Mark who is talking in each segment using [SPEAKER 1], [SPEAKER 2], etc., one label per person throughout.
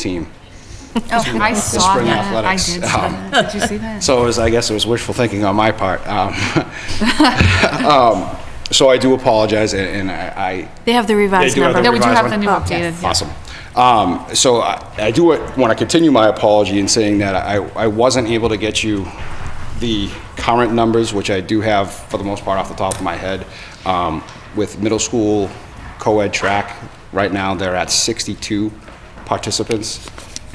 [SPEAKER 1] team.
[SPEAKER 2] Oh, I saw
[SPEAKER 1] spring
[SPEAKER 2] that. I
[SPEAKER 1] athletics. Um,
[SPEAKER 2] did see that. Did you see that?
[SPEAKER 1] So it was, I guess it was wishful thinking on my part. Um, um, So I do apologize, and- and I,
[SPEAKER 3] They have the revised
[SPEAKER 4] do have
[SPEAKER 3] number.
[SPEAKER 4] the
[SPEAKER 2] No, we do
[SPEAKER 4] revised
[SPEAKER 2] have
[SPEAKER 4] one?
[SPEAKER 2] the new
[SPEAKER 3] Oh,
[SPEAKER 2] updated.
[SPEAKER 1] I- awesome. Um, So I I do want to continue my apology in saying that I I wasn't able to get you the current numbers, which I do have for the most part off the top of my head. Um, With middle school co-ed track, right now, they're at 62 participants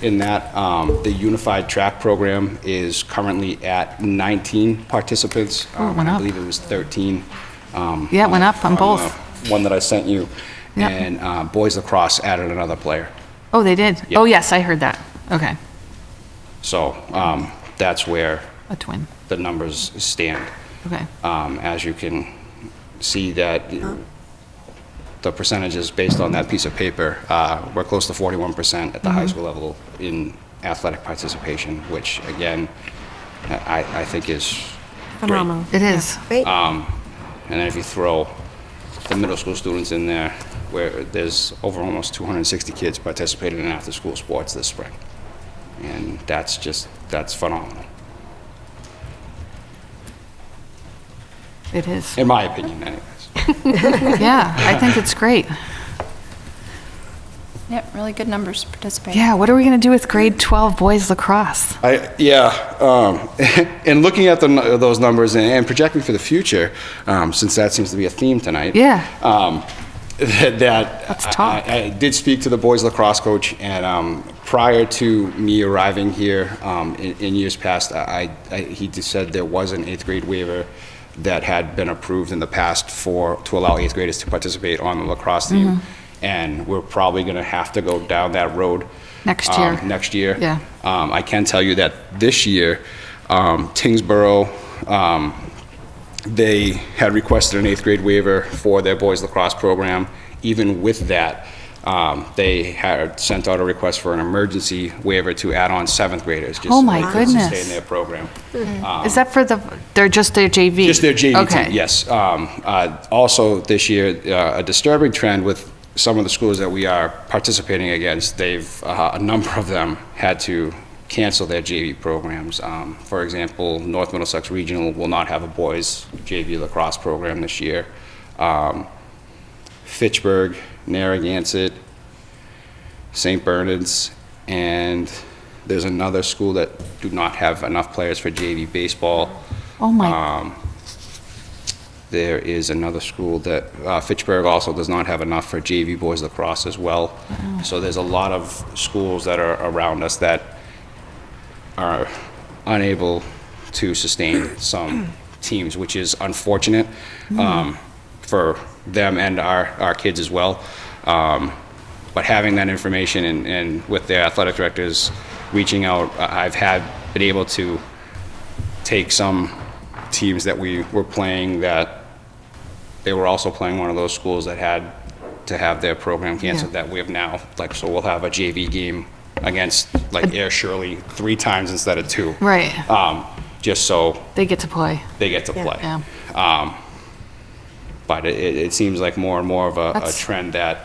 [SPEAKER 1] in that. Um, The unified track program is currently at 19 participants.
[SPEAKER 2] Oh, it
[SPEAKER 1] Um,
[SPEAKER 2] went
[SPEAKER 1] I
[SPEAKER 2] up.
[SPEAKER 1] believe it was 13. um,
[SPEAKER 2] Yeah, it went up on both.
[SPEAKER 1] the One that I sent you.
[SPEAKER 2] Yep.
[SPEAKER 1] And uh, Boys Lacrosse added another player.
[SPEAKER 2] Oh, they did?
[SPEAKER 1] Yeah.
[SPEAKER 2] Oh, yes, I heard that. Okay,
[SPEAKER 1] So um, that's where
[SPEAKER 2] a twin.
[SPEAKER 1] the numbers stand.
[SPEAKER 2] Okay. Uh-huh.
[SPEAKER 1] Um, As you can see that the percentages based on that piece of paper, uh, we're close to 41% at the
[SPEAKER 2] Mm-hmm.
[SPEAKER 1] high school level in athletic participation, which again, I I think is great.
[SPEAKER 3] Phenomenal.
[SPEAKER 2] It is.
[SPEAKER 5] Great.
[SPEAKER 1] And then if you throw the middle school students in there, where there's over almost 260 kids participating in after-school sports this spring. And that's just, that's phenomenal,
[SPEAKER 2] It is.
[SPEAKER 1] in my opinion anyways.
[SPEAKER 2] Yeah, I think it's great.
[SPEAKER 6] Yep, really good numbers participating.
[SPEAKER 2] Yeah, what are we going to do with grade 12 boys lacrosse?
[SPEAKER 1] I, yeah, um, and looking at the, nu- those numbers and, and projecting for the future, um, since that seems to be a theme tonight.
[SPEAKER 2] Yeah.
[SPEAKER 1] Um, that that
[SPEAKER 2] Let's
[SPEAKER 1] I-
[SPEAKER 2] talk.
[SPEAKER 1] I, I did speak to the boys lacrosse coach, and um, prior to me arriving here um, in, in years past, I, I, he just said there was an eighth grade waiver that had been approved in the past for to allow eighth graders to participate on the lacrosse team,
[SPEAKER 2] Mm-hmm.
[SPEAKER 1] and we're probably going to have to go down that road
[SPEAKER 2] Next
[SPEAKER 1] um,
[SPEAKER 2] year.
[SPEAKER 1] next year.
[SPEAKER 2] Yeah.
[SPEAKER 1] Um, I can tell you that this year, um, Tingsboro, um, they had requested an eighth grade waiver for their boys lacrosse program. Even with that, um, they had sent out a request for an emergency waiver to add on seventh graders. just
[SPEAKER 2] Oh
[SPEAKER 1] so
[SPEAKER 2] my
[SPEAKER 1] they could sustain
[SPEAKER 2] goodness.
[SPEAKER 1] their program.
[SPEAKER 2] Is that for the, they're just their JV?
[SPEAKER 1] Um, Just their JV
[SPEAKER 2] Okay.
[SPEAKER 1] team, yes. Um, uh, Also, this year, uh, a disturbing trend with some of the schools that we are participating against, they've, uh, a number of them had to cancel their JV programs. Um, For example, North Middlesex Regional will not have a boys JV lacrosse program this year. Um, Fitchburg, Narragansett, St. Bernard's, and there's another school that do not have enough players for JV baseball.
[SPEAKER 2] Oh
[SPEAKER 1] Um,
[SPEAKER 2] my,
[SPEAKER 1] There is another school that, uh, Fitchburg also does not have enough for JV boys lacrosse as well. So there's a lot of schools that are around us that are unable to sustain some teams, which is unfortunate um, for them and our, our kids as well. Um, But having that information and, and with their athletic directors reaching out, I- I've had, been able to take some teams that we were playing that they were also playing one of those schools that had to have their program canceled
[SPEAKER 2] Yeah.
[SPEAKER 1] that we have now. Like, so we'll have a JV game against like Air Shirley three times instead of two.
[SPEAKER 2] right,
[SPEAKER 1] Um, just so
[SPEAKER 2] they get to play.
[SPEAKER 1] they get to play.
[SPEAKER 2] Yeah.
[SPEAKER 1] But it- it, it seems like more and more of a, a
[SPEAKER 2] That's-
[SPEAKER 1] trend that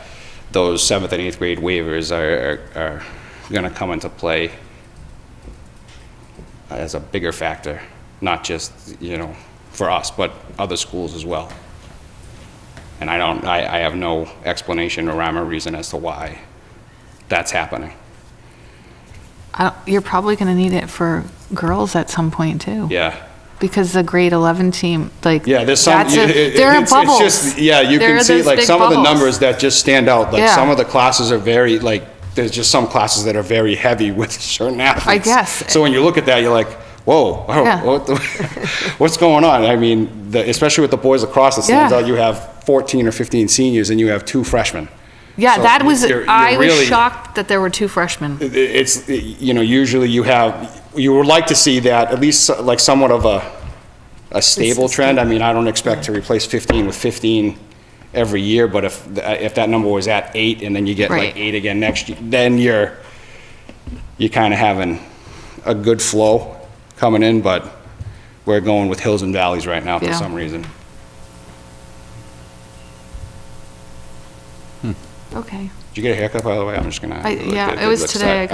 [SPEAKER 1] those seventh and eighth grade waivers are, are, are going to come into play as a bigger factor, not just, you know, for us, but other schools as well. And I don't, I, I have no explanation or rhyme or reason as to why that's happening.
[SPEAKER 2] I don't- You're probably going to need it for girls at some point, too.
[SPEAKER 1] Yeah.
[SPEAKER 2] Because the grade 11 team, like.
[SPEAKER 1] Yeah, there's some.
[SPEAKER 2] that's a-
[SPEAKER 1] it- it-
[SPEAKER 2] There are
[SPEAKER 1] it's- it's
[SPEAKER 2] bubbles.
[SPEAKER 1] just- Yeah, you
[SPEAKER 2] There are
[SPEAKER 1] can see
[SPEAKER 2] those
[SPEAKER 1] like
[SPEAKER 2] big
[SPEAKER 1] some of the
[SPEAKER 2] bubbles.
[SPEAKER 1] numbers that just stand out. Like
[SPEAKER 2] Yeah.
[SPEAKER 1] some of the classes are very like. There's just some classes that are very heavy with certain athletes.
[SPEAKER 2] guess.
[SPEAKER 1] So when you look at that, you're like, whoa, oh,
[SPEAKER 2] Yeah.
[SPEAKER 1] what the, what's going on? I mean, the, especially with the boys lacrosse, it stands
[SPEAKER 2] Yeah.
[SPEAKER 1] out. You have 14 or 15 seniors, and you have two freshmen.
[SPEAKER 2] Yeah,
[SPEAKER 1] So
[SPEAKER 2] that was,
[SPEAKER 1] you're- you're
[SPEAKER 2] I was
[SPEAKER 1] really-
[SPEAKER 2] shocked that there were two freshmen.
[SPEAKER 1] it- it's, you know, usually you have, you would like to see that, at least like somewhat of a, a stable trend. I mean, I don't expect to replace 15 with 15 every year, but if, th- if that number was at eight and then you get
[SPEAKER 2] Right.
[SPEAKER 1] like eight again next year, then you're, you're kind of having a good flow coming in, but we're going with hills and valleys right now for
[SPEAKER 2] Yeah.
[SPEAKER 1] some reason.
[SPEAKER 2] Okay.
[SPEAKER 1] Did you get a haircut, by the way? I'm just gonna.
[SPEAKER 2] I-
[SPEAKER 1] look
[SPEAKER 2] yeah,
[SPEAKER 1] at-
[SPEAKER 2] it was
[SPEAKER 1] look at
[SPEAKER 2] today.
[SPEAKER 1] that.
[SPEAKER 2] I